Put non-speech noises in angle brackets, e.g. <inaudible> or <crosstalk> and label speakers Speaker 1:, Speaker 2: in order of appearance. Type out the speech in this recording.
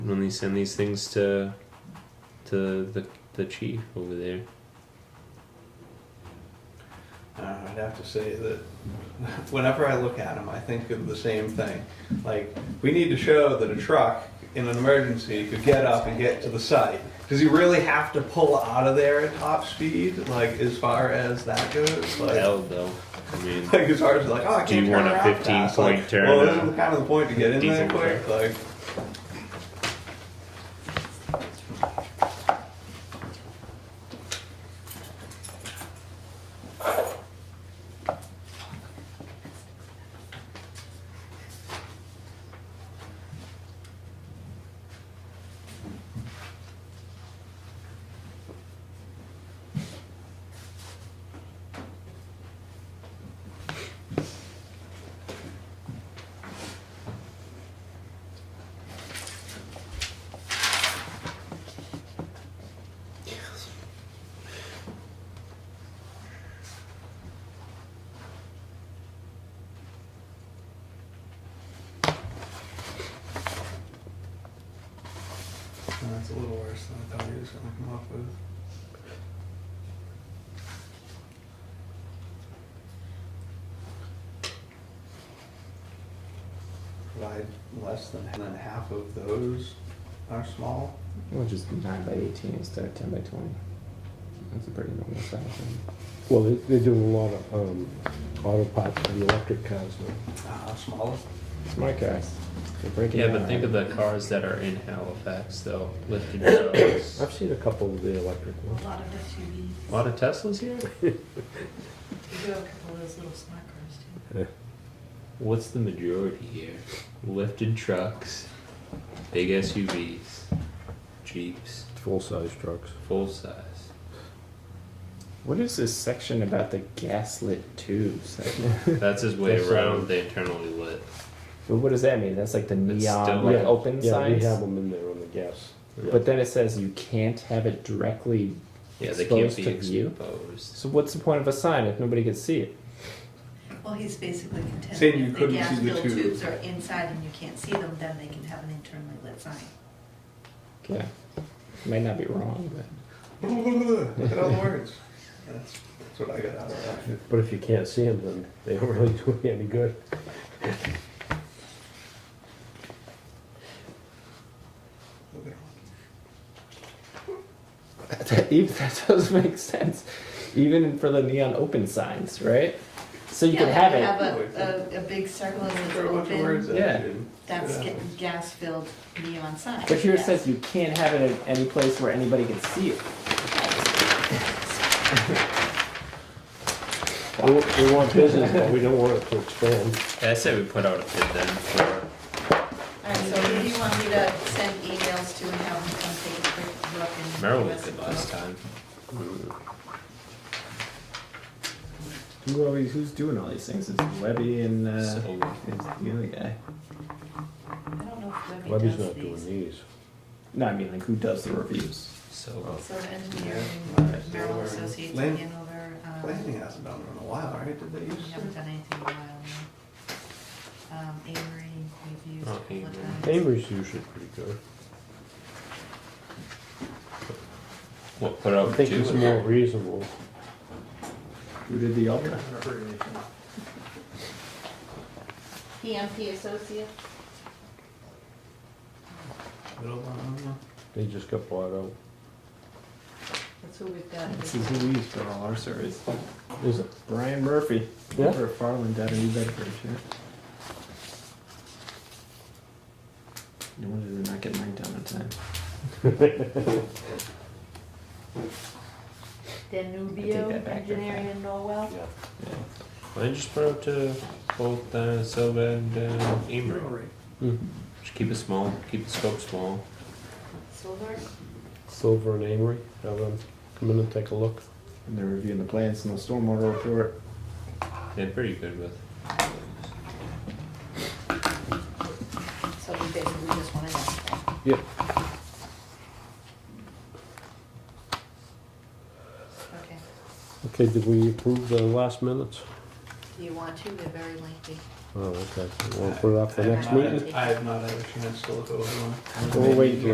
Speaker 1: when they send these things to to the the chief over there.
Speaker 2: Uh, I'd have to say that whenever I look at them, I think of the same thing. Like, we need to show that a truck in an emergency could get up and get to the site. Does he really have to pull out of there at top speed, like, as far as that goes? Like,
Speaker 1: Hell, though. I mean,
Speaker 2: like as far as like, oh, I
Speaker 1: Do
Speaker 2: can't
Speaker 1: you
Speaker 2: turn
Speaker 1: want a
Speaker 2: around
Speaker 1: 15
Speaker 2: fast.
Speaker 1: point
Speaker 2: like,
Speaker 1: turn
Speaker 2: Well,
Speaker 1: on
Speaker 2: isn't kind of the point to get in there
Speaker 1: diesel
Speaker 2: quick? Like, that's a little worse than I thought he was going to come up with. Provide less than, than half of those are small.
Speaker 3: Well, just nine by eighteen instead of ten by twenty. That's a pretty normal size. thing.
Speaker 4: Well, they- they're doing a lot of um, auto parts for the electric cars now.
Speaker 2: Uh, smaller. <laughs>
Speaker 3: Smart guys. They're breaking
Speaker 1: yeah,
Speaker 3: down,
Speaker 1: but think
Speaker 3: right?
Speaker 1: of the cars that are in Halifax, though. Lifted trucks.
Speaker 4: I've seen a couple of the electric
Speaker 5: A
Speaker 4: ones.
Speaker 5: lot of SUVs.
Speaker 1: A lot of Teslas here?
Speaker 5: We do have a couple of those little smart cars too.
Speaker 1: What's the majority here? Lifted trucks, big SUVs, Jeeps,
Speaker 4: Full-size trucks.
Speaker 1: full size.
Speaker 3: What is this section about the gaslit tubes? <laughs>
Speaker 1: That's his way
Speaker 4: That's, uh,
Speaker 1: around the internally lit.
Speaker 3: but what does that mean? That's like the
Speaker 1: still-
Speaker 3: neon like
Speaker 4: Yeah,
Speaker 3: open
Speaker 4: Yeah, we
Speaker 3: signs.
Speaker 4: have them in there on the gas.
Speaker 3: But then it says you can't have it directly.
Speaker 1: Yeah, they can't
Speaker 3: Exposed
Speaker 1: be
Speaker 3: to view?
Speaker 1: exposed.
Speaker 3: So what's the point of a sign if nobody can see it?
Speaker 5: Well, he's basically
Speaker 2: Saying you
Speaker 5: contending if the
Speaker 2: couldn't
Speaker 5: gas
Speaker 2: see the
Speaker 5: filled
Speaker 2: tube.
Speaker 5: tubes are inside and you can't see them, then they can have an internally lit sign.
Speaker 3: Yeah, may not be wrong, but
Speaker 2: Look at all the words. That's, that's what I got out of that.
Speaker 4: But if you can't see them, then they don't <laughs> really do you any good.
Speaker 2: Look at all
Speaker 3: <laughs> That, even, that does make sense, even for the neon open signs, right? So you
Speaker 5: Yeah,
Speaker 3: can
Speaker 5: they
Speaker 3: have it.
Speaker 5: Have a, a, a big circle and it's
Speaker 2: Throw a bunch of words
Speaker 5: open,
Speaker 2: at
Speaker 3: Yeah.
Speaker 2: you.
Speaker 5: that's
Speaker 2: Yeah.
Speaker 5: getting gas filled neon sign.
Speaker 3: But here it
Speaker 5: Yes.
Speaker 3: says you can't have it in any place where anybody can see
Speaker 4: <laughs>
Speaker 3: it.
Speaker 4: We want- We want business, but we don't want it to expand.
Speaker 1: Yeah, I say we put out a bid then for
Speaker 5: Alright, so who do you want me to send emails to and have them come take a quick look and.
Speaker 1: Merrill
Speaker 5: give us
Speaker 1: did
Speaker 5: a
Speaker 1: last
Speaker 5: quote?
Speaker 1: time.
Speaker 3: Mm. Who are we, who's doing all these things? It's Webby and uh,
Speaker 1: So-
Speaker 3: it's the other guy.
Speaker 5: I don't know if Webby
Speaker 4: Webby's
Speaker 5: does
Speaker 4: not doing
Speaker 5: these.
Speaker 4: these.
Speaker 3: No, I mean like who does the reviews?
Speaker 1: So
Speaker 5: So engineering,
Speaker 2: Yeah.
Speaker 5: Merrill Associates,
Speaker 2: Lynn?
Speaker 5: Hanover, um.
Speaker 2: Planning hasn't done it in a while, right? Did they
Speaker 5: We
Speaker 2: use
Speaker 5: haven't done anything in a while now. Um, Avery, we've used a
Speaker 1: Oh,
Speaker 5: couple
Speaker 1: Avery.
Speaker 5: of times.
Speaker 4: Avery's usually pretty good.
Speaker 1: we'll put
Speaker 4: I
Speaker 1: out
Speaker 4: think
Speaker 1: two.
Speaker 4: it's
Speaker 1: in
Speaker 4: more
Speaker 1: there.
Speaker 4: reasonable.
Speaker 3: Who did the Ultra?
Speaker 5: PMP Associates?
Speaker 2: Middle one?
Speaker 4: They just got bought out.
Speaker 5: That's who we've got.
Speaker 3: This is who we use for all our surveys.
Speaker 4: Is it?
Speaker 3: Brian Murphy.
Speaker 4: Yeah.
Speaker 3: Over at Farland down in New Bedford. Yeah. No wonder they're not getting mine done in time. I take that
Speaker 5: Danubio
Speaker 3: back, Engineering
Speaker 5: and Norwell.
Speaker 4: Yeah.
Speaker 3: Yeah.
Speaker 1: Why don't you just put out to both uh, Silva and uh, Emery?
Speaker 2: Brewery.
Speaker 3: Mm.
Speaker 1: Just keep it small, keep the scope small.
Speaker 5: Silver?
Speaker 4: Silver and Amory, have them come in and take a look.
Speaker 3: And they're reviewing the plans and the stormwater report.
Speaker 1: They're pretty good with.
Speaker 5: So we basically just wanted that.
Speaker 4: Yep.
Speaker 5: Okay.
Speaker 4: Okay, did we approve the last minutes?
Speaker 5: Do you want to? They're very lengthy.
Speaker 4: Oh, okay. We'll put it up for
Speaker 2: I have
Speaker 4: next
Speaker 2: not
Speaker 4: meeting.
Speaker 2: had- I have not had a chance to look over one.
Speaker 4: We'll wait